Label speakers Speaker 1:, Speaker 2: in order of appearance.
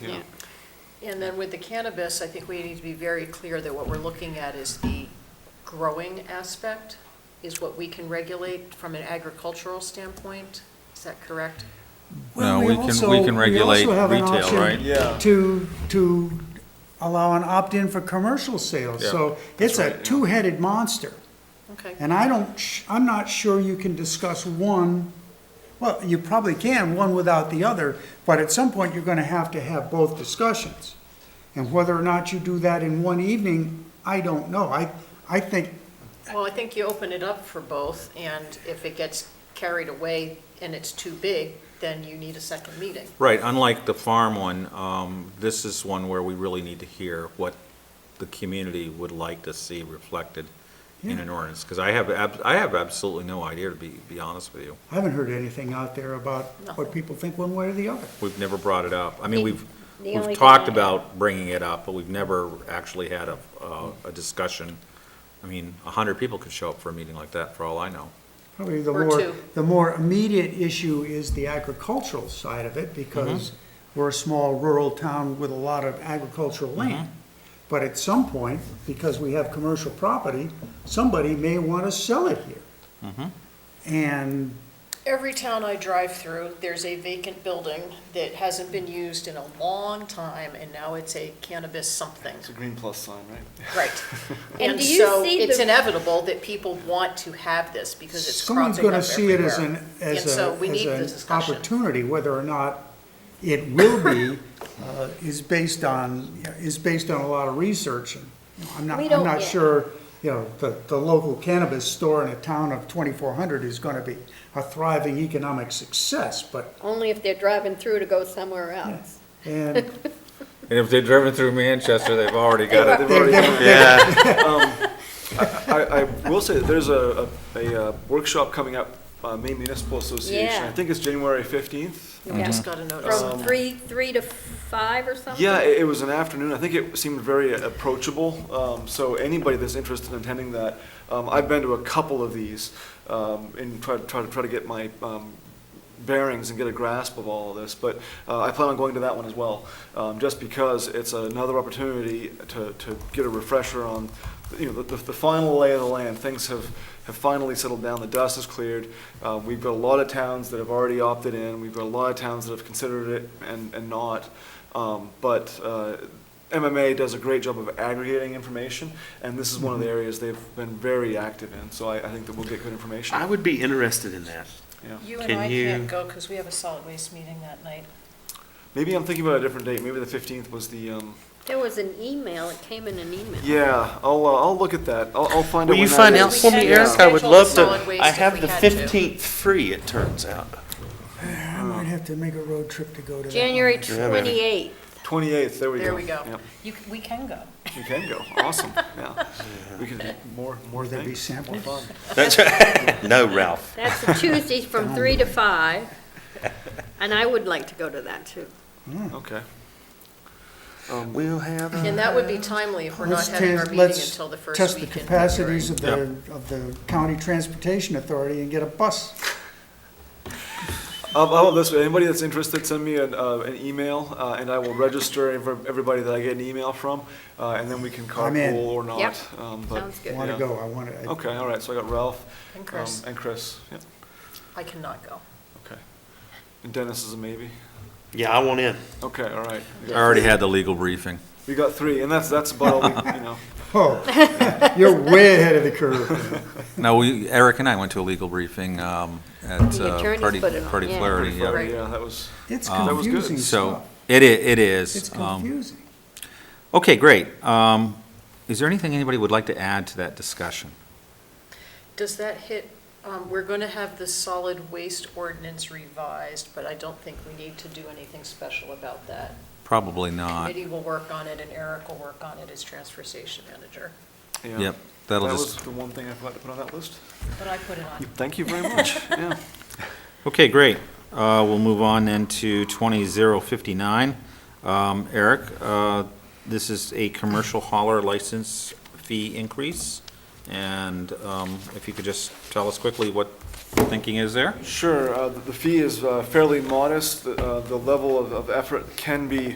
Speaker 1: Yeah.
Speaker 2: And then with the cannabis, I think we need to be very clear that what we're looking at is the growing aspect, is what we can regulate from an agricultural standpoint. Is that correct?
Speaker 3: No,
Speaker 4: Well,
Speaker 3: we can,
Speaker 4: also-
Speaker 3: we can regulate
Speaker 4: also have an
Speaker 3: retail,
Speaker 4: option
Speaker 3: right?
Speaker 1: Yeah.
Speaker 4: To, to allow an opt-in for commercial sales,
Speaker 3: Yeah,
Speaker 4: so it's
Speaker 3: right,
Speaker 4: a
Speaker 3: yeah.
Speaker 4: two-headed monster.
Speaker 2: Okay.
Speaker 4: And I don't, sh- I'm not sure you can discuss one, well, you probably can, one without the other, but at some point, you're gonna have to have both discussions. And whether or not you do that in one evening, I don't know. I, I think,
Speaker 2: Well, I think you open it up for both, and if it gets carried away and it's too big, then you need a second meeting.
Speaker 3: Right, unlike the farm one, um, this is one where we really need to hear what the community would like to see reflected in an ordinance, because I have, ab- I have absolutely no idea, to be, be honest with you.
Speaker 4: I haven't heard anything out there about what
Speaker 2: Nothing.
Speaker 4: people think one way or the other.
Speaker 3: We've never brought it up. I mean, we've,
Speaker 5: the only
Speaker 3: we've
Speaker 5: thing
Speaker 3: talked
Speaker 5: I-
Speaker 3: about bringing it up, but we've never actually had a, a- a discussion. I mean, a hundred people could show up for a meeting like that, for all I know.
Speaker 4: Probably the
Speaker 2: Or
Speaker 4: more,
Speaker 2: two.
Speaker 4: the more immediate issue is the agricultural side of it, because we're a small rural town with a lot of agricultural land. But at some point, because we have commercial property, somebody may want to sell it here. And
Speaker 2: Every town I drive through, there's a vacant building that hasn't been used in a long time, and now it's a cannabis something.
Speaker 1: It's a green plus sign, right?
Speaker 2: Right.
Speaker 5: And
Speaker 2: And
Speaker 5: do you
Speaker 2: so
Speaker 5: see
Speaker 2: it's
Speaker 5: the-
Speaker 2: inevitable that people want to have this because it's
Speaker 4: someone's
Speaker 2: cropping up
Speaker 4: going to see it
Speaker 2: everywhere.
Speaker 4: as an,
Speaker 2: And
Speaker 4: as
Speaker 2: so
Speaker 4: a,
Speaker 2: we need this
Speaker 4: as an
Speaker 2: discussion.
Speaker 4: opportunity, whether or not it will be, uh, is based on, is based on a lot of research. And I'm not,
Speaker 5: We
Speaker 4: I'm
Speaker 5: don't
Speaker 4: not
Speaker 5: yet.
Speaker 4: sure, you know, the, the local cannabis store in a town of 2,400 is going to be a thriving economic success, but,
Speaker 5: Only if they're driving through to go somewhere else.
Speaker 4: and
Speaker 3: And if they're driven through Manchester, they've already got it.
Speaker 1: Oh, Yeah. I, I will say that there's a, a a, uh, workshop coming up, uh, Maine Municipal Association.
Speaker 5: Yeah.
Speaker 1: I think it's January 15th.
Speaker 2: We just got a notice.
Speaker 5: From three, three to five or something?
Speaker 1: Um, Yeah, it, it was an afternoon. I think it seemed very approachable. Um, so anybody that's interested in attending that, um, I've been to a couple of these um, and try, try to try to get my um, bearings and get a grasp of all of this. But uh, I plan on going to that one as well, um, just because it's another opportunity to, to get a refresher on, you know, the, the final lay of the land. Things have have finally settled down. The dust has cleared. Uh, we've got a lot of towns that have already opted in. We've got a lot of towns that have considered it and, and not. Um, but uh, MMA does a great job of aggregating information, and this is one of
Speaker 2: Mm-hmm.
Speaker 1: the areas they've been very active in. So I, I think that we'll get good information.
Speaker 6: I would be interested in that.
Speaker 1: yeah.
Speaker 2: You and
Speaker 6: Can
Speaker 2: I can't
Speaker 6: you-
Speaker 2: go because we have a solid waste meeting that night.
Speaker 1: Maybe I'm thinking about a different date. Maybe the 15th was the. Um,
Speaker 5: There was an email, it came in an email.
Speaker 1: yeah, I'll uh, I'll look at that. I'll, I'll find
Speaker 6: Will
Speaker 1: out.
Speaker 6: you
Speaker 1: when that
Speaker 6: find
Speaker 1: is.
Speaker 6: out for me,
Speaker 2: We had
Speaker 6: Eric? I would
Speaker 2: scheduled
Speaker 6: love to.
Speaker 2: solid waste
Speaker 6: I
Speaker 2: if we
Speaker 6: have the
Speaker 2: had to.
Speaker 6: 15th free, it turns out.
Speaker 4: I might have to make a road trip to go to that. one.
Speaker 5: January
Speaker 6: Yeah, baby.
Speaker 5: 28th.
Speaker 1: 28th. There we
Speaker 2: There
Speaker 1: go.
Speaker 2: we go.
Speaker 1: Yep,
Speaker 2: You, c- we can go.
Speaker 1: you can go. Awesome. Yeah, we can do more more
Speaker 4: Will there be
Speaker 1: things.
Speaker 4: samples?
Speaker 6: That's right. No, Ralph.
Speaker 5: That's a Tuesday from three to five. And I would like to go to that too.
Speaker 2: Hmm.
Speaker 1: Okay.
Speaker 6: Um, We'll have a.
Speaker 2: And that would be timely if we're not
Speaker 4: Let's
Speaker 2: having our
Speaker 4: test-
Speaker 2: meeting until the first
Speaker 4: Let's
Speaker 2: week
Speaker 4: test the
Speaker 2: in February.
Speaker 4: capacities of the, of the county transportation authority and get a bus.
Speaker 1: How how about this, way? anybody that's interested, send me an, uh, an email, uh, and I will register ev- everybody that I get an email from, uh, and then we can
Speaker 4: I'm in.
Speaker 1: carpool or not.
Speaker 5: Yep.
Speaker 1: um, but-
Speaker 5: Sounds
Speaker 4: I
Speaker 5: good.
Speaker 4: want to
Speaker 1: Yeah.
Speaker 4: go, I want to.
Speaker 1: Okay, all right, so I got Ralph.
Speaker 2: And
Speaker 1: um,
Speaker 2: Chris.
Speaker 1: And Chris, yeah,
Speaker 2: I cannot go.
Speaker 1: okay. And Dennis is a maybe?
Speaker 6: Yeah, I want in.
Speaker 1: Okay, all right.
Speaker 3: I
Speaker 1: We got-
Speaker 3: already had the legal briefing.
Speaker 1: We got three, and that's, that's about all, we- you know.
Speaker 4: Oh, you're way ahead of the
Speaker 1: Uh,
Speaker 4: curve.
Speaker 3: No, we, Eric and I went to a legal briefing, um, at,
Speaker 5: The
Speaker 3: uh,
Speaker 5: attorneys
Speaker 3: Party,
Speaker 5: put it on,
Speaker 3: Party
Speaker 5: yeah.
Speaker 3: Flaherty, yeah.
Speaker 1: Friday, Yeah, that was,
Speaker 4: It's
Speaker 1: That was good.
Speaker 4: confusing
Speaker 3: So,
Speaker 4: stuff.
Speaker 3: it i- it is.
Speaker 4: It's
Speaker 3: um,
Speaker 4: confusing.
Speaker 3: Okay, great. Um, is there anything anybody would like to add to that discussion?
Speaker 2: Does that hit, um, we're going to have the solid waste ordinance revised, but I don't think we need to do anything special about that.
Speaker 3: Probably not.
Speaker 2: Eddie will work on it and Eric will work on it as transfer station manager.
Speaker 1: yeah.
Speaker 3: Yep, that'll
Speaker 1: That
Speaker 3: just,
Speaker 1: was the one thing I forgot to put on that list.
Speaker 2: But I put it on.
Speaker 1: Thank you very much, yeah.
Speaker 3: okay, great. Uh, we'll move on then to twenty zero fifty-nine. Um, Eric, uh, this is a commercial hauler license fee increase. And, um, if you could just tell us quickly what thinking is there?
Speaker 1: Sure, uh, the the fee is uh, fairly modest. The uh, the level of- of effort can be